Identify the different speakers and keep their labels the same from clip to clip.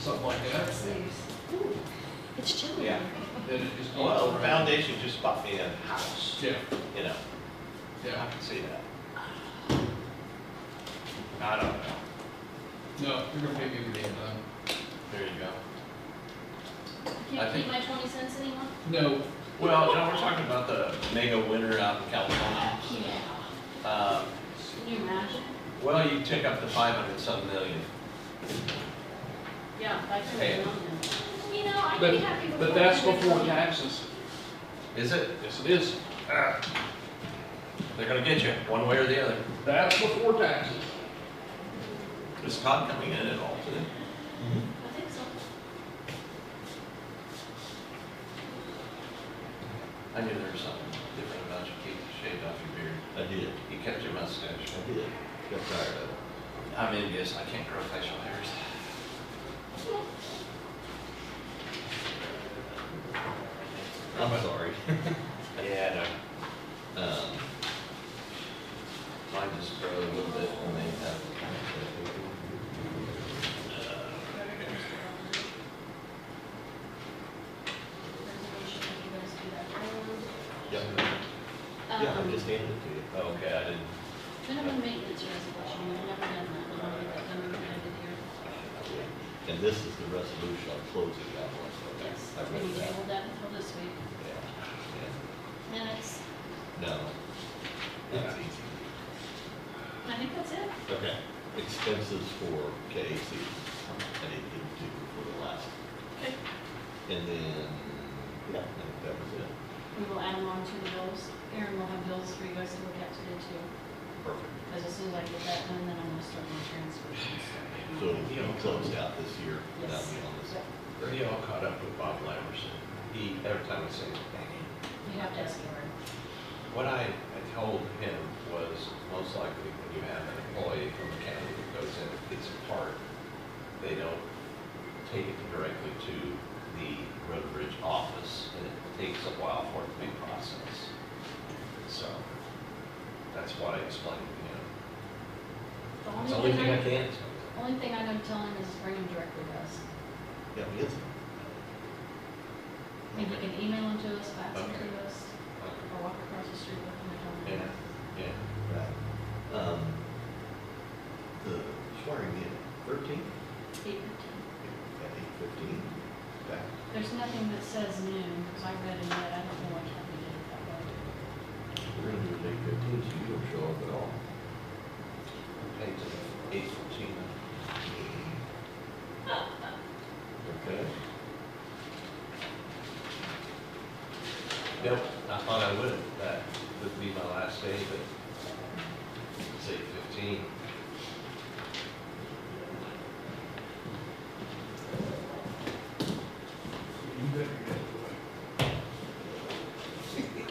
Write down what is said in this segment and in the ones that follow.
Speaker 1: something like that.
Speaker 2: It's chilly.
Speaker 3: Yeah.
Speaker 1: Then it just.
Speaker 3: Well, the foundation just bought me a house,
Speaker 1: Yeah,
Speaker 3: you know, I
Speaker 1: yeah.
Speaker 3: can see that. I don't know,
Speaker 1: No, you're gonna pay me every um, damn time.
Speaker 3: there you go.
Speaker 1: I
Speaker 4: Can't
Speaker 1: think-
Speaker 4: keep my twenty cents anymore?
Speaker 1: No,
Speaker 3: Well, John, we're talking about the mega winter out in California.
Speaker 4: Yeah.
Speaker 3: Um,
Speaker 4: Can you imagine?
Speaker 3: Well, you take up the five hundred some million.
Speaker 4: Yeah, if I can
Speaker 3: Hey.
Speaker 4: get on there. You know, I could be
Speaker 1: But-
Speaker 4: happy before.
Speaker 1: but that's
Speaker 4: the next
Speaker 1: before
Speaker 4: one.
Speaker 1: taxes.
Speaker 3: Is it?
Speaker 1: Yes, it is.
Speaker 3: Ah. They're gonna get you, one way or the other.
Speaker 1: That's before taxes.
Speaker 3: Is Todd coming in at all today?
Speaker 4: I think so.
Speaker 3: I knew there was something different about you, Keith, you shaved off your beard.
Speaker 5: I did,
Speaker 3: You kept your mustache.
Speaker 5: I did. Got tired of it.
Speaker 3: I'm envious, I can't grow facial hairs.
Speaker 5: I'm sorry.
Speaker 3: Yeah, no.
Speaker 5: Um,
Speaker 3: Mine just grow a little bit when they have.
Speaker 4: Resolution, you guys do that road.
Speaker 5: Yeah, yeah, I just handed it to you.
Speaker 3: Oh, Okay, I didn't.
Speaker 4: Um, Minimum maintenance resolution, we've never done that, one. We've done it every
Speaker 5: And this is the resolution on closing that one.
Speaker 4: year. Yes,
Speaker 5: I
Speaker 4: we
Speaker 5: read
Speaker 4: need to
Speaker 5: that.
Speaker 4: hold that until this week.
Speaker 5: Yeah,
Speaker 4: Minutes,
Speaker 5: yeah. No.
Speaker 3: That's
Speaker 5: Yeah.
Speaker 3: easy.
Speaker 4: I think that's it.
Speaker 5: Okay. Expenses for KAC. I need to do for the last.
Speaker 4: Okay.
Speaker 5: And then, yeah, I think that was it.
Speaker 4: We will add them on to the bills. Aaron will have bills for you guys to look at today too,
Speaker 5: Perfect.
Speaker 4: because as soon as I get that done, then I'm gonna start my transfers and stuff.
Speaker 5: So it'll be closed out this year, and I'll be on this.
Speaker 4: Yep.
Speaker 3: We all caught up with Bob Lamerson. He, every time I say, "Hey,
Speaker 4: You have to ask Aaron.
Speaker 3: what I had told him was most likely when you have an employee from the county that goes in and gets a part, they don't take it directly to the road and bridge office and it takes a while for it to be processed. So that's what I explained to him.
Speaker 4: The
Speaker 3: It's the only thing I
Speaker 4: I-
Speaker 3: can.
Speaker 4: Only thing I'm gonna tell him is bring him directly to us.
Speaker 5: Yeah, we is.
Speaker 4: Maybe you can email him to us, fax him
Speaker 3: Okay.
Speaker 4: to us, or walk across the street with him and tell
Speaker 3: Yeah,
Speaker 4: him.
Speaker 3: yeah.
Speaker 5: Right. Um, the swearing in, thirteen?
Speaker 4: Eight fifteen.
Speaker 5: At eight fifteen, back.
Speaker 4: There's nothing that says noon, because I read it yet, I don't know what time we did it that way.
Speaker 5: We're gonna do it at eight fifteen, so you don't show up at all.
Speaker 3: Eight to eight fourteen.
Speaker 5: Okay.
Speaker 3: Nope, I thought I would, that would be my last day, but it's eight fifteen.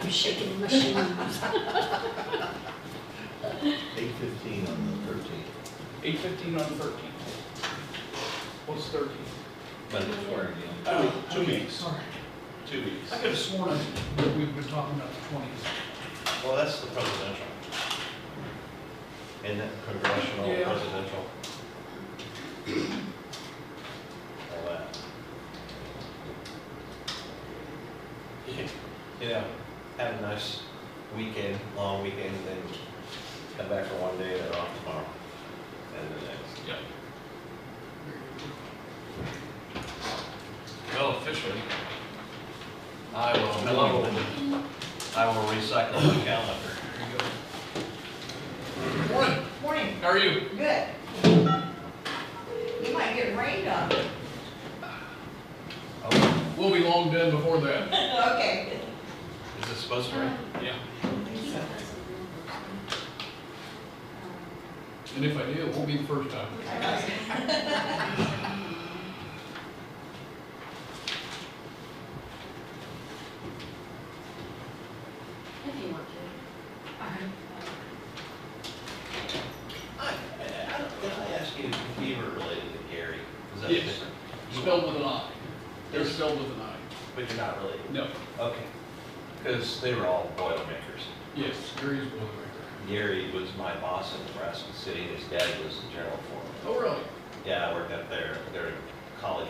Speaker 2: I'm shaking the machine.
Speaker 5: Eight fifteen on the thirteenth.
Speaker 1: Eight fifteen on thirteen. What's thirteen?
Speaker 3: But it's swearing in.
Speaker 1: Oh, two weeks. Sorry.
Speaker 3: Two weeks.
Speaker 1: I could have sworn that we've been talking about the twentieth.
Speaker 3: Well, that's the presidential. And that congressional,
Speaker 1: Yeah.
Speaker 3: presidential. All that. You know, have a nice weekend, long weekend, then come back for one day, they're off tomorrow, and the next.
Speaker 1: Yeah.
Speaker 3: Well, officially. I will, I will recycle my calendar.
Speaker 1: There you go. Morning,
Speaker 6: Morning,
Speaker 1: how are you?
Speaker 6: good. You might get rained on.
Speaker 3: Oh,
Speaker 1: We'll be long done before that.
Speaker 6: Okay.
Speaker 3: is it supposed to rain?
Speaker 4: Um,
Speaker 1: Yeah.
Speaker 4: Keith has a real person.
Speaker 1: And if I do, it won't be the first time.
Speaker 4: Um, If you want to.
Speaker 3: I, I don't- did I ask you, if you were related to Gary? Is that
Speaker 1: Yes.
Speaker 3: different? You
Speaker 1: Spelled
Speaker 3: are,
Speaker 1: with an I. They're spelled with an I.
Speaker 3: But you're not related?
Speaker 1: No,
Speaker 3: Okay. Because they were all Boilermakers.
Speaker 1: yes, Gary's Boilermaker.
Speaker 3: Gary was my boss in Nebraska City, and his dad was the general foreman.
Speaker 1: Oh, really?
Speaker 3: Yeah, I worked up there, their college